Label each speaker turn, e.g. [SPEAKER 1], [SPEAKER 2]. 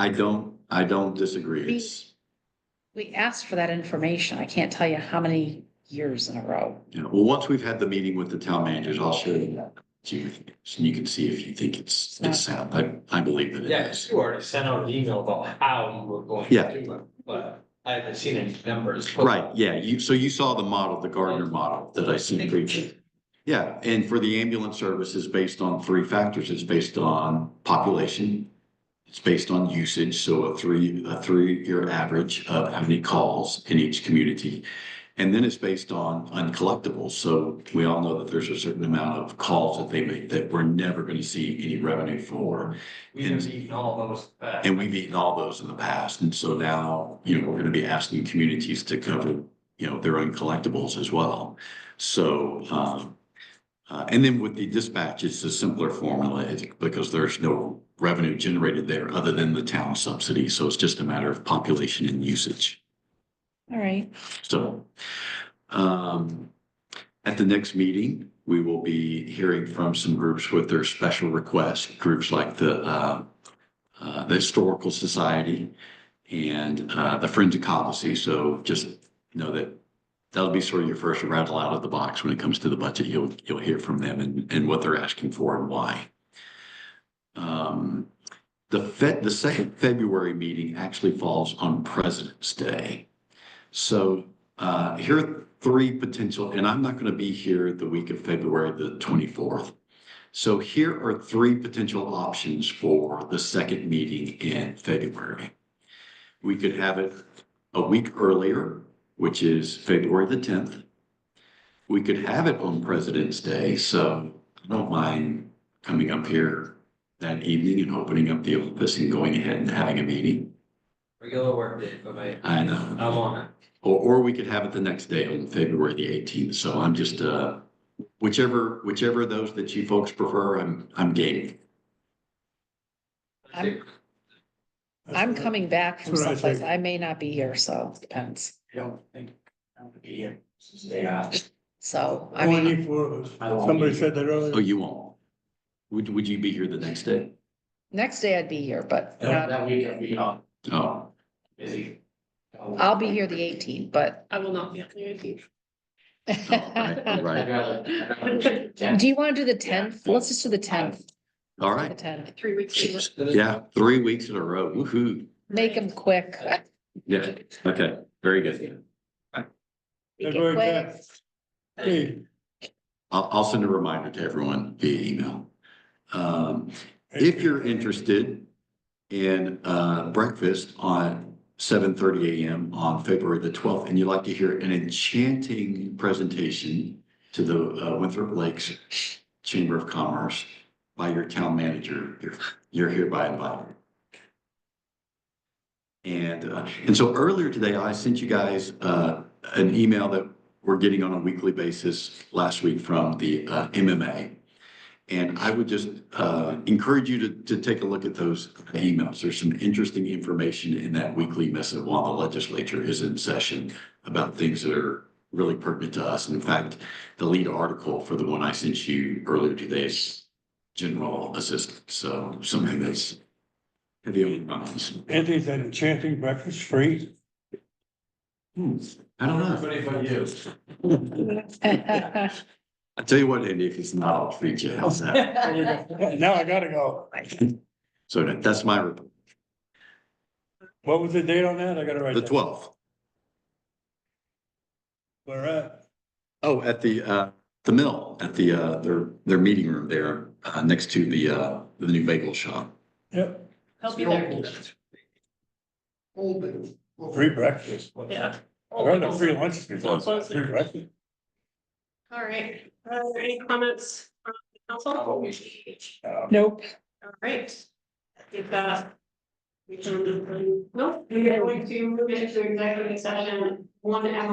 [SPEAKER 1] I don't, I don't disagree. It's,
[SPEAKER 2] We asked for that information. I can't tell you how many years in a row.
[SPEAKER 1] you know, well, once we've had the meeting with the town managers, I'll show you. that. So you so you can see if you think it's, it's sound. I, I believe that it
[SPEAKER 3] Yeah, 'cause
[SPEAKER 1] is.
[SPEAKER 3] you already sent out an email about how you were going
[SPEAKER 1] Yeah.
[SPEAKER 3] to do it, but I haven't seen any numbers.
[SPEAKER 1] Right, yeah, you, so you saw the model, the Gardner model that I seen previously. Yeah, and for the ambulance service is based on three factors. It's based on population. It's based on usage, so a three, a three-year average of how many calls in each community. And then it's based on uncollectibles, so we all know that there's a certain amount of calls that they make that we're never gonna see any revenue for.
[SPEAKER 3] We didn't even all those uh, back.
[SPEAKER 1] And we've eaten all those in the past, and so now, you know, we're gonna be asking communities to cover, you know, their own collectibles as well. So, um, uh, and then with the dispatch, it's a simpler formula, it's because there's no revenue generated there other than the town subsidy, so it's just a matter of population and usage.
[SPEAKER 2] All right.
[SPEAKER 1] So, um, at the next meeting, we will be hearing from some groups with their special requests, groups like the, uh, uh, the Historical Society and, uh, the Friends of Copacy. So just know that that'll be sort of your first rattle out of the box when it comes to the budget. You'll, you'll hear from them and, and what they're asking for and why. Um, the Fed, the second February meeting actually falls on President's Day. So uh, here are three potential, and I'm not going to be here the week of February the 24th. So here are three potential options for the second meeting in February. We could have it a week earlier, which is February the 10th. We could have it on President's Day, so I don't mind coming up here that evening and opening up the office and going ahead and having a meeting.
[SPEAKER 3] Regular work day for me.
[SPEAKER 1] I know.
[SPEAKER 3] I'm on it.
[SPEAKER 1] Or, or we could have it the next day on February the eighteenth, so I'm just, uh, whichever, whichever of those that you folks prefer, I'm, I'm game.
[SPEAKER 3] I think
[SPEAKER 2] I'm coming back from
[SPEAKER 4] That's what I
[SPEAKER 2] someplace.
[SPEAKER 4] think.
[SPEAKER 2] I may not be here, so it depends.
[SPEAKER 4] don't think I'm gonna be here.
[SPEAKER 3] Yeah.
[SPEAKER 2] So, I mean,
[SPEAKER 4] Only for,
[SPEAKER 3] I won't
[SPEAKER 4] somebody
[SPEAKER 3] be
[SPEAKER 4] said that
[SPEAKER 1] Oh,
[SPEAKER 4] earlier.
[SPEAKER 1] you won't? Would, would you be here the next day?
[SPEAKER 2] next day I'd be here, but not-
[SPEAKER 3] That that week I'll be on
[SPEAKER 1] Oh,
[SPEAKER 3] busy.
[SPEAKER 2] I'll be here the eighteenth, but.
[SPEAKER 5] I will not be on the eighteenth.
[SPEAKER 4] Oh,
[SPEAKER 1] all right, all right,
[SPEAKER 3] I'd rather- I'd rather- Yeah.
[SPEAKER 2] Do you want to do the tenth? Let's just do the tenth.
[SPEAKER 1] all
[SPEAKER 2] The
[SPEAKER 1] right.
[SPEAKER 2] tenth.
[SPEAKER 5] Three weeks. later.
[SPEAKER 1] Yeah, three weeks in a row, woo-hoo.
[SPEAKER 2] Make them quick.
[SPEAKER 1] Yeah, okay, very good.
[SPEAKER 2] Make
[SPEAKER 4] February
[SPEAKER 2] it quick.
[SPEAKER 4] 10th. Hey,
[SPEAKER 1] I'll, I'll send a reminder to everyone via email. Um, If you're interested in uh, breakfast on seven thirty AM on February the twelfth, and you'd like to hear an enchanting presentation to the uh, Winthrop Lakes Chamber of Commerce by your town manager, you're- you're hereby invited. And, uh, and so earlier today, I sent you guys uh, an email that we're getting on a weekly basis last week from the uh, MMA. And I would just uh, encourage you to, to take a look at those emails. There's some interesting information in that weekly missive while the legislature is in session about things that are really pertinent to us. In fact, the lead article for the one I sent you earlier today is general assistance. So something that's heavy on your minds.
[SPEAKER 4] It is an enchanting breakfast free.
[SPEAKER 1] Hmm, I don't know.
[SPEAKER 3] Everybody but you.
[SPEAKER 1] I tell you what, Andy, if it's not, I'll treat you. How's that?
[SPEAKER 4] Now I gotta go.
[SPEAKER 1] So that- that's my, report.
[SPEAKER 4] What was the date on that? I gotta write
[SPEAKER 1] the
[SPEAKER 4] that.
[SPEAKER 1] twelfth.
[SPEAKER 4] Where at?
[SPEAKER 1] Oh, at the, uh, the mill, at the, uh, their, their meeting room there, uh, next to the, uh, the new bagel shop.
[SPEAKER 4] Yep,
[SPEAKER 5] I'll be there.
[SPEAKER 4] free breakfast.
[SPEAKER 5] Yeah.
[SPEAKER 4] I heard of free lunches before.
[SPEAKER 5] Close it.
[SPEAKER 4] Free breakfast.
[SPEAKER 5] All right, Uh, any comments from the council? All
[SPEAKER 2] Nope.
[SPEAKER 5] right. If, uh, um, we can, no, we're going to move into executive session, one hour.